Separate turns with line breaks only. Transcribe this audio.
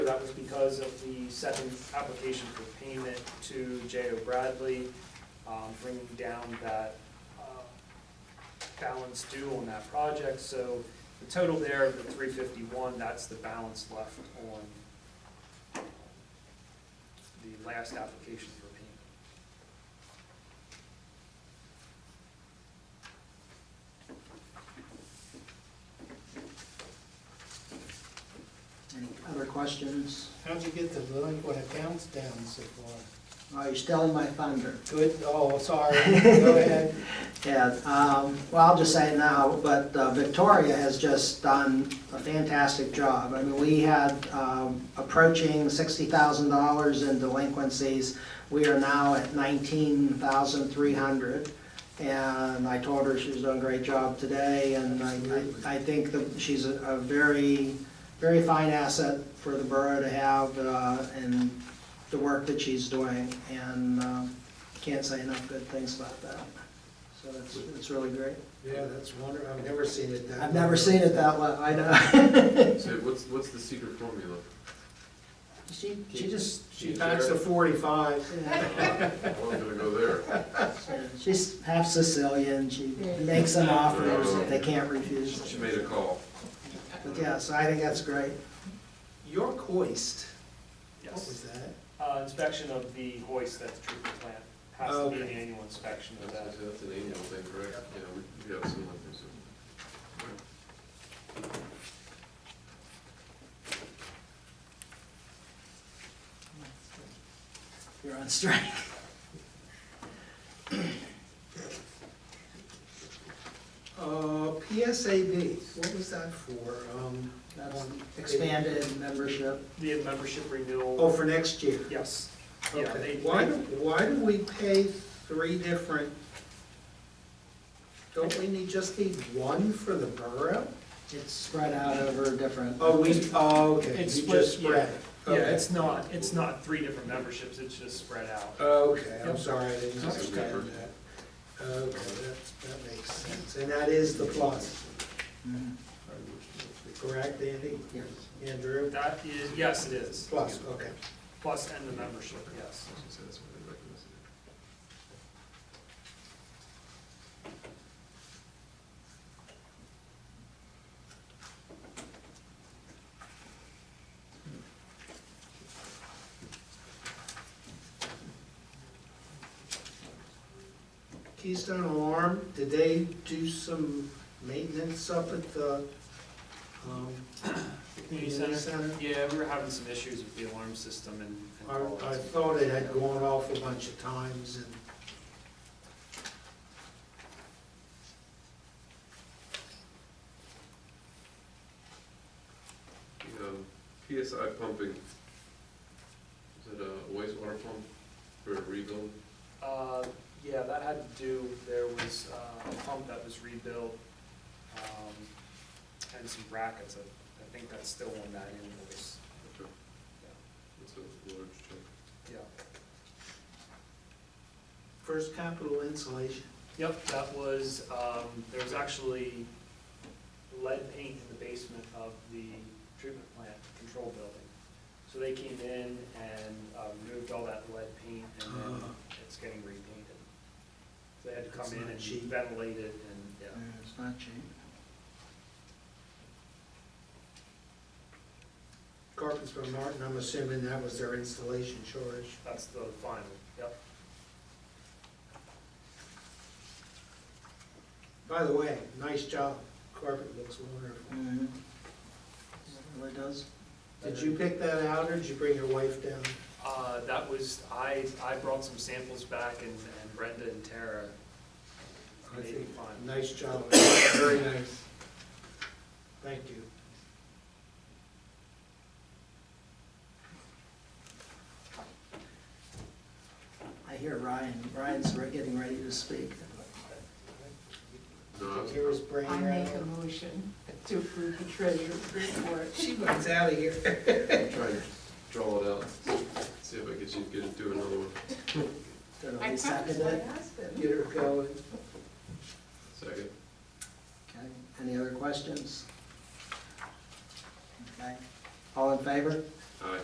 that was because of the second application for payment to J O Bradley, um, bringing down that, uh, balance due on that project, so the total there of the three fifty-one, that's the balance left on um, the last application for payment.
Any other questions?
How'd you get the delinquent accounts down so far?
Oh, you're stealing my thunder.
Good, oh, sorry, go ahead.
Yeah, um, well, I'll just say it now, but uh, Victoria has just done a fantastic job. I mean, we had um, approaching sixty thousand dollars in delinquencies. We are now at nineteen thousand three hundred. And I told her she's doing a great job today, and I, I I think that she's a a very, very fine asset for the borough to have, uh, and the work that she's doing. And uh, can't say enough good things about that. So it's, it's really great.
Yeah, that's wonderful, I've never seen it that.
I've never seen it that way, I know.
So what's, what's the secret formula?
She, she just, she
She's
backs a
there.
forty-five.
I wasn't Uh, gonna go there.
She's half Sicilian, she makes them offers that they can't refuse.
She made a call.
But yeah, so I think that's great.
Your hoist, what
Yes.
was that?
Uh, inspection of the hoist at the treatment plant, has to be an annual inspection of
That's
that.
that's an annual thing, correct? Yeah, we- we have some like this.
You're on strike.
Uh, PSAB, what was that for? Um,
That's expanded membership.
The membership renewal,
Oh, for next year?
yes. Yeah,
Okay.
they-
Why, do- why do we pay three different? Don't we need, just need one for the borough?
It's spread out over different.
Oh, we, oh, okay,
It's
you
split,
just spread it.
Yeah,
Okay.
it's not, it's not three different memberships, it's just spread out.
Oh, Okay, I'm
Yep.
sorry, I didn't
That's okay.
understand that. Okay, that, that makes sense, and that is the plus,
Mhm.
correct, Andy?
Yes.
Andrew?
That is, yes, it is,
Plus, okay.
plus and the membership, yes.
So that's what they recommend.
Keystone Alarm, did they do some maintenance up at the, um,
Community center? Yeah, we were having some issues with the alarm system and. and
I,
all
I
that.
thought it had gone off a bunch of times and.
The, um, PSI pumping, is it a wastewater pump for a rebuild?
Uh, yeah, that had to do, there was uh, a pump that was rebuilt, um, and some brackets, I I think that's still on that invoice,
Okay, That's a large check.
yeah.
First Capital Insulation,
Yep, that was, um, there was actually lead paint in the basement of the treatment plant control building. So they came in and um, removed all that lead paint and then it's getting repainted. So They had to come
Ah. That's
in
not
and
cheap.
ventilate it and,
Yeah,
yeah.
Uh, It's not cheap.
Carpets from Martin, I'm assuming that was their installation charge.
That's the final, yep.
By the way, nice job, carpet looks wonderful.
Mhm. It really does.
Did you pick that out, or did you bring your wife down?
Uh, that was, I, I brought some samples back and and Brenda and Tara
I
made
think,
it fine.
nice job, very nice. Thank you.
I hear Ryan, Ryan's re- getting ready to speak.
No, I was-
Here is Brandon.
I make a motion to approve the treasurer's report.
She runs out of here.
I'm trying to draw it out, see if I can see- get it to another one.
Did
I
we
promised
second
my
it?
husband.
Get her going.
Second.
Okay, any other questions? Okay, all in favor?